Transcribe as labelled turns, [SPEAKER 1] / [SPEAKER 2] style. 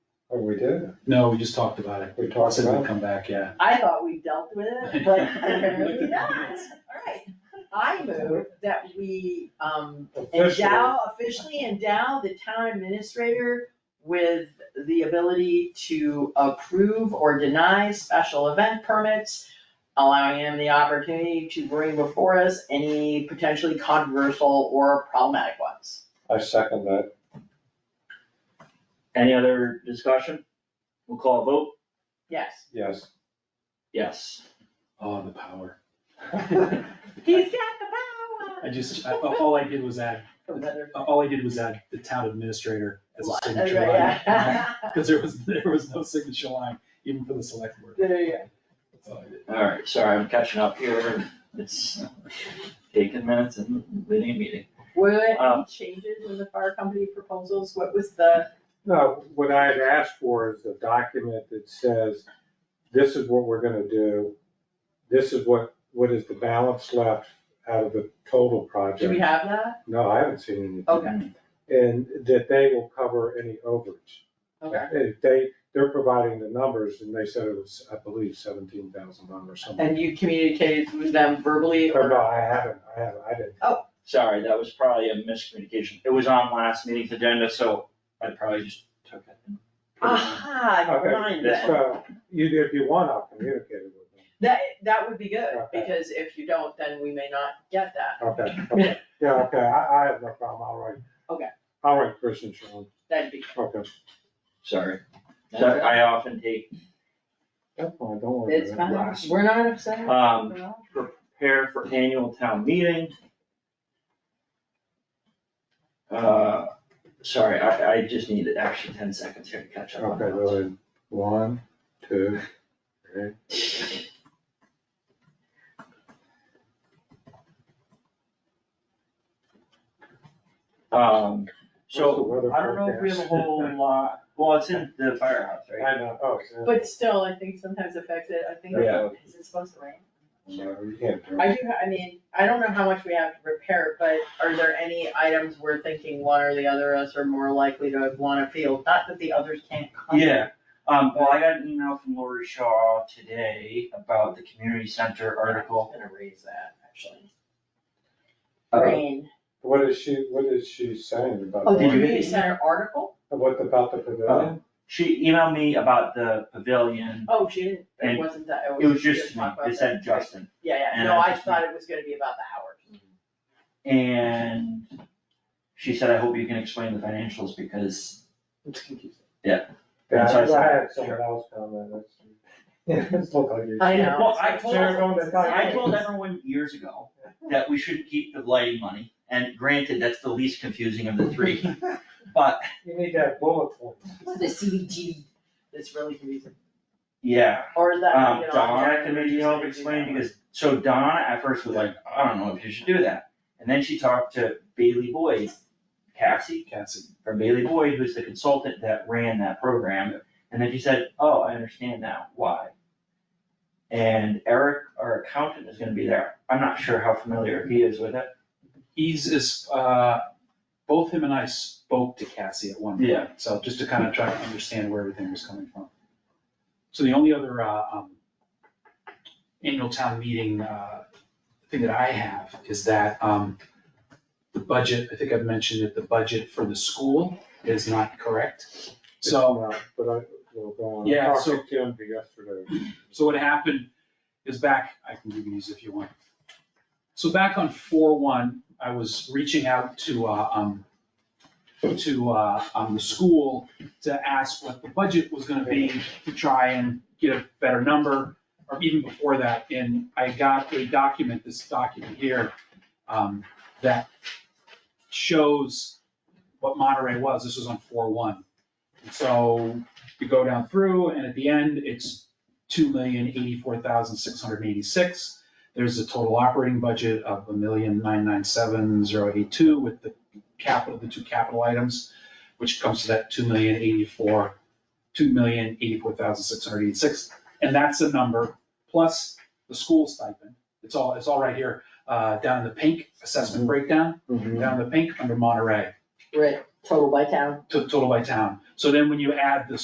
[SPEAKER 1] Oh, we did?
[SPEAKER 2] No, we just talked about it.
[SPEAKER 1] We talked
[SPEAKER 2] Said
[SPEAKER 1] about
[SPEAKER 2] we'd
[SPEAKER 1] it.
[SPEAKER 2] come back, yeah.
[SPEAKER 3] I thought we dealt with it, but apparently not. Alright, I move that we um
[SPEAKER 1] Officially,
[SPEAKER 3] endow, officially endow the town administrator with the ability to approve or deny special event permits, allowing him the opportunity to bring before us any potentially controversial or problematic ones.
[SPEAKER 1] I second that.
[SPEAKER 4] Any other discussion? We'll call a vote,
[SPEAKER 3] Yes.
[SPEAKER 1] Yes.
[SPEAKER 4] yes.
[SPEAKER 2] Oh, the power.
[SPEAKER 3] He's got the power.
[SPEAKER 2] I just, I, all I did was add,
[SPEAKER 3] Oh,
[SPEAKER 2] all I did was add the town administrator as a signature line.
[SPEAKER 3] Yeah.
[SPEAKER 2] Cause there was, there was no signature line, even for the select board.
[SPEAKER 3] There you go.
[SPEAKER 2] That's all I did.
[SPEAKER 4] Alright, sorry, I'm catching up here, it's taking minutes and leading a meeting.
[SPEAKER 3] Were there any
[SPEAKER 4] Um,
[SPEAKER 3] changes in the fire company proposals? What was the,
[SPEAKER 1] No, what I had asked for is a document that says, this is what we're gonna do. This is what, what is the balance left out of the total
[SPEAKER 3] do we
[SPEAKER 1] project?
[SPEAKER 3] have that?
[SPEAKER 1] No, I haven't seen anything.
[SPEAKER 3] Okay,
[SPEAKER 1] And that they will cover any overage.
[SPEAKER 3] okay.
[SPEAKER 1] If They, they're providing the numbers and they said it was, I believe, seventeen thousand dollars or something.
[SPEAKER 3] And you communicated with them verbally
[SPEAKER 1] Or
[SPEAKER 3] or?
[SPEAKER 1] no, I haven't, I haven't, I didn't.
[SPEAKER 4] Sorry, that was probably a miscommunication, it was on last meeting's agenda, so I probably just took it. and put it on.
[SPEAKER 3] Aha, I
[SPEAKER 1] Okay,
[SPEAKER 3] remind
[SPEAKER 4] that's
[SPEAKER 3] them.
[SPEAKER 1] So, you, if you want, I'll communicate it with them.
[SPEAKER 3] That, that would be good,
[SPEAKER 1] Okay.
[SPEAKER 3] because if you don't, then we may not get that.
[SPEAKER 1] Okay, okay, yeah, okay, I, I have no problem, I'll write.
[SPEAKER 3] Okay.
[SPEAKER 1] I'll write Chris and Sean,
[SPEAKER 3] That'd be,
[SPEAKER 1] okay,
[SPEAKER 4] Sorry, So I often take,
[SPEAKER 1] that's fine, don't worry.
[SPEAKER 3] it's
[SPEAKER 1] about it.
[SPEAKER 3] fine, we're not upset.
[SPEAKER 4] um, prepare for annual town meeting. Uh, sorry, I, I just need actually ten seconds here to catch up on
[SPEAKER 1] Okay,
[SPEAKER 4] that.
[SPEAKER 1] really, one, two, three,
[SPEAKER 4] Um,
[SPEAKER 1] What's the
[SPEAKER 4] so,
[SPEAKER 1] weather
[SPEAKER 4] I don't know if we have a
[SPEAKER 1] forecast?
[SPEAKER 4] whole lot, well, it's in the firehouse, right?
[SPEAKER 1] I know, oh, so,
[SPEAKER 3] But still, I think sometimes affects it, I think,
[SPEAKER 4] Yeah.
[SPEAKER 3] is it supposed to rain?
[SPEAKER 1] no, you can't do it.
[SPEAKER 3] I do, ha- I mean, I don't know how much we have to repair, but are there any items we're thinking one or the other of us are more likely to wanna field? Not that the others can't come.
[SPEAKER 4] Yeah, um, well, I got an email from Lori Shaw today about the community center article.
[SPEAKER 3] I'm gonna raise that, actually.
[SPEAKER 4] Uh,
[SPEAKER 3] Rain.
[SPEAKER 1] What is she, what is she saying about?
[SPEAKER 3] Oh, the
[SPEAKER 4] did you-
[SPEAKER 3] community center article?
[SPEAKER 1] What about the pavilion?
[SPEAKER 4] She emailed me about the pavilion,
[SPEAKER 3] Oh, she didn't, it
[SPEAKER 4] And
[SPEAKER 3] wasn't that, it was.
[SPEAKER 4] it was
[SPEAKER 3] she
[SPEAKER 4] just,
[SPEAKER 3] didn't talk about
[SPEAKER 4] it said
[SPEAKER 3] that.
[SPEAKER 4] Justin,
[SPEAKER 3] Yeah, yeah,
[SPEAKER 4] and
[SPEAKER 3] no,
[SPEAKER 4] I
[SPEAKER 3] I
[SPEAKER 4] just-
[SPEAKER 3] thought it was gonna be about the hours.
[SPEAKER 4] and she said, I hope you can explain the financials because,
[SPEAKER 1] It's confusing.
[SPEAKER 4] Yeah.
[SPEAKER 1] Yeah,
[SPEAKER 4] That's what I
[SPEAKER 1] I
[SPEAKER 4] said.
[SPEAKER 1] had someone else comment, that's, yeah, it's look like you.
[SPEAKER 3] I know.
[SPEAKER 4] well, I told
[SPEAKER 1] They're going to die.
[SPEAKER 4] I told everyone years ago that we should keep the lighting money, and granted, that's the least confusing of the three, but,
[SPEAKER 1] You need that bullet point.
[SPEAKER 3] The CBGB. It's really confusing.
[SPEAKER 4] yeah.
[SPEAKER 3] Or that,
[SPEAKER 4] Um,
[SPEAKER 3] you know.
[SPEAKER 4] Donna
[SPEAKER 3] I'm just
[SPEAKER 4] can maybe
[SPEAKER 3] gonna
[SPEAKER 4] help
[SPEAKER 3] do
[SPEAKER 4] explain,
[SPEAKER 3] that one.
[SPEAKER 4] because, so Donna at first was like, I don't know if you should do that. And then she talked to Bailey Boyd, Cassie,
[SPEAKER 2] Cassie,
[SPEAKER 4] from Bailey Boyd, who's the consultant that ran that program. And then she said, oh, I understand now, why? And Eric, our accountant, is gonna be there. I'm not sure how familiar he is with it.
[SPEAKER 2] he's, is, uh, both him and I spoke to Cassie at one point.
[SPEAKER 4] Yeah.
[SPEAKER 2] So just to kind of try to understand where everything was coming from. So the only other, uh, um, annual town meeting, uh, thing that I have is that, um, the budget, I think I've mentioned that the budget for the school is not correct. So
[SPEAKER 1] It's not, But I, will go on.
[SPEAKER 2] Yeah,
[SPEAKER 1] I
[SPEAKER 2] so-
[SPEAKER 1] talked to Tim yesterday.
[SPEAKER 2] So what happened is back, I can give you these if you want. So back on four one, I was reaching out to, uh, um, to, uh, um, the school to ask what the budget was gonna be to try and get a better number, or even before that, and I got a document, this document here, um, that shows what Monterey was, this was on four one. So you go down through, and at the end, it's two million eighty-four thousand six hundred eighty-six. There's a total operating budget of a million nine nine seven zero eight two with the capital, the two capital items, which comes to that two million eighty-four, two million eighty-four thousand six hundred eighty-six. And that's the number, plus the school stipend. It's all, it's all right here, uh, down in the pink assessment breakdown,
[SPEAKER 1] Mm-hmm.
[SPEAKER 2] down in the pink under Monterey,
[SPEAKER 3] Right, total by town.
[SPEAKER 2] to- total by town. So then when you add the